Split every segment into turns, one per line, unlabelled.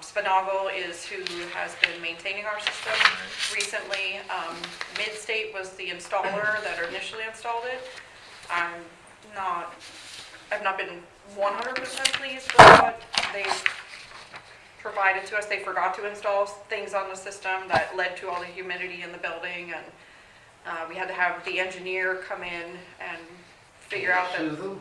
Spinagle um, is who has been maintaining our system recently. Um, Midstate was the installer that initially installed it. I'm not, I've not been one hundred percent pleased with what they provided to us. They forgot to install things on the system that led to all the humidity in the building and uh, we had to have the engineer come in and figure out
Can you
that, Mm-hmm.
sue them?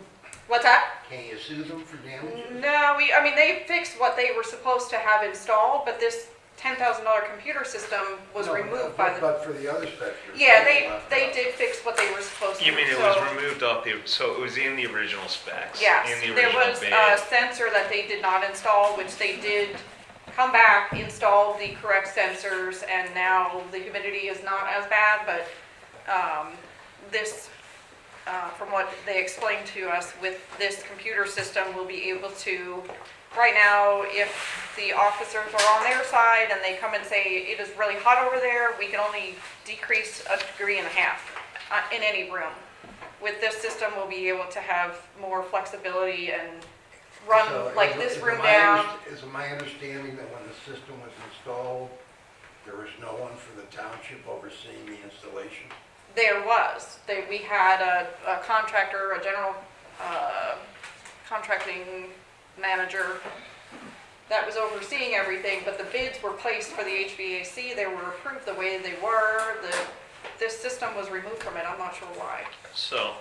what's that?
Can you sue them for damages?
No, we, I mean, they fixed what they were supposed to have installed, but this ten thousand dollar computer system was
No,
removed
but-
by the,
But for the other section.
yeah, they, they did fix what they were supposed to.
You mean it
so-
was removed off the, so it was in the original specs?
Yes,
In the
there
original
was uh, a
bid?
sensor that they did not install, which they did come back, install the correct sensors, and now the humidity is not as bad, but, um, this, uh, from what they explained to us, with this computer system, we'll be able to, right now, if the officers are on their side and they come and say, it is really hot over there, we can only decrease a degree and a half uh, in any room. With this system, we'll be able to have more flexibility and
So
run like
is-
this
is
room
my
down.
underst- Is my understanding that when the system was installed, there was no one for the township overseeing the installation?
There was, they, we had a, a contractor, a general, uh, contracting manager that was overseeing everything, but the bids were placed for the HVAC, they were approved the way they were, the, this system was removed from it, I'm not sure why.
So,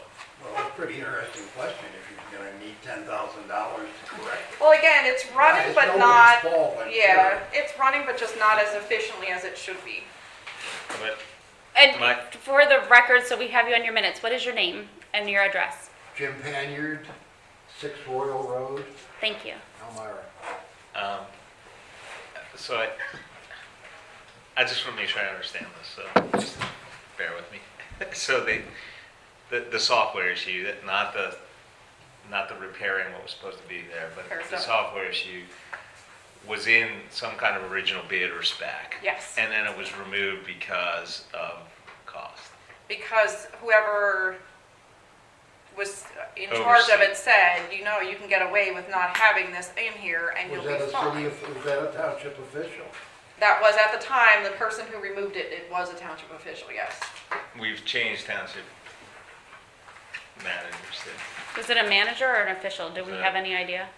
Well, it's a pretty interesting question if you're gonna need ten thousand dollars to correct. it.
Well, again, it's running
It's
but
nobody's
not,
fault, I'm
yeah,
sure.
it's running but just not as efficiently as it should be.
but
And
Mike?
for the record, so we have you on your minutes, what is your name and your address?
Jim Panyard, Six Royal Road,
Thank you.
Elmira.
Um, so I, I just want to make sure I understand this, so just bear with me. So they, the, the software issue, that not the, not the repairing what was supposed to be there, but
Fair
the
enough.
software issue was in some kind of original bid or spec.
Yes.
And then it was removed because of cost.
because whoever was in charge of
Oversee.
it said, you know, you can get away with not having this in here and you'll
Was that
be
a city,
fine.
of- was that a township official?
That was at the time, the person who removed it, it was a township official, yes.
We've changed township managers there.
Was it a manager or an official? Do we
Uh,
have any idea?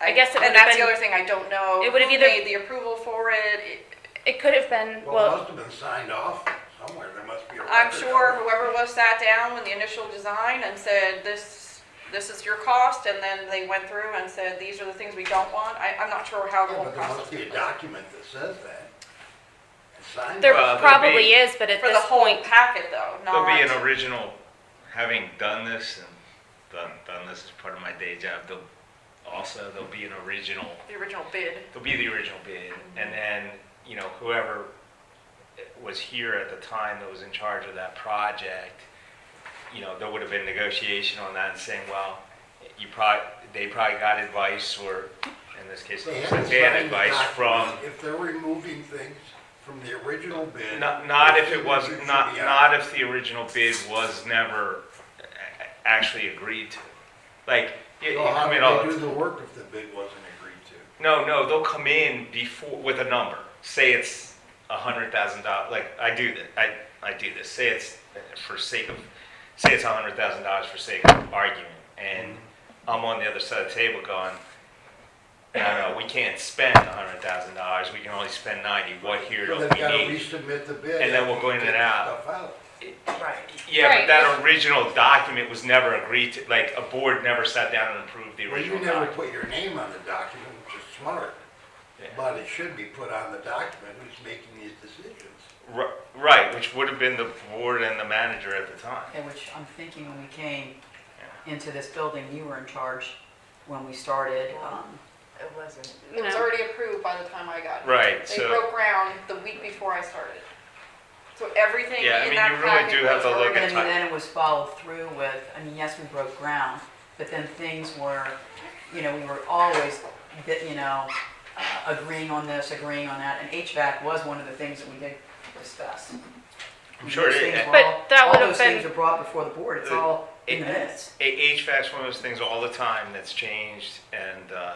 I guess it would've
And that's the
been-
other thing, I don't know.
It would've
who
either-
Made the approval for it, It-
It could have
Well,
been,
it
well,
must have been signed off somewhere, there must be a record.
I'm
of
sure
it.
whoever was sat down with the initial design and said, this, this is your cost, and then they went through and said, these are the things we don't want, I, I'm not sure how the
Yeah,
whole
but there
process.
must be a document that says that. It's Signed.
there
Well, there'll
probably
be-
is, but at
For the
this
whole
point,
packet though,
There'll
not.
be an original, having done this and done, done this as part of my day job, there'll, also, there'll be an original,
The original bid.
there'll be the original bid. And then, you know, whoever was here at the time that was in charge of that project, you know, there would have been negotiation on that and saying, well, you probably, they probably got advice or, in this case,
They
they
haven't
had
signed the
advice from.
document. If they're removing things from the original bid.
Not, not if
their
it was,
signature should
not,
be out.
not if the original bid was never a- a- actually agreed to. Like, you you
Well, Oh, how
come in
would
all,
they do
the-
the work if the bid wasn't agreed to?
oh, no, no, they'll come in before, with a number. Say it's a hundred thousand dollars, like, I do that, I, I do this. Say it's, for sake of, say it's a hundred thousand dollars for sake of argument. And
Mm-hmm.
I'm on the other side of the table going, no, no, we can't spend a hundred thousand dollars. We can only spend ninety. What here do
So
we
they've got to
need?
resubmit the bid.
And then we'll go in
after
and
they take
out.
stuff out.
Yeah, but
Right.
that original document was never agreed to, like, a board never sat down and approved the
Well, you
original
never put
document.
your name on the document, which is smart,
Yeah.
but it should be put on the document who's making these decisions.
Ri- Right, which would have been the board and the manager at the time.
Okay, which I'm thinking when we came into this building, you were in charge when we started. um,
It wasn't.
you
It was
know,
already approved by the time I got here.
Right,
They
so,
broke ground the week before I started. So everything in
Yeah, I mean,
that
you really
packet
do have
was
to look
already-
at
And
time.
then it was followed through with, I mean, yes, we broke ground, but then things were, you know, we were always, bit- you know, uh, agreeing on this, agreeing on that, and HVAC was one of the things that we did discuss.
I'm sure
Those
it- Uh,
things were
But
all-
that would
All
have
those things
been-
are brought before the board, it's all in the minutes.
A- HVAC's one of those things all the time that's changed, and, uh,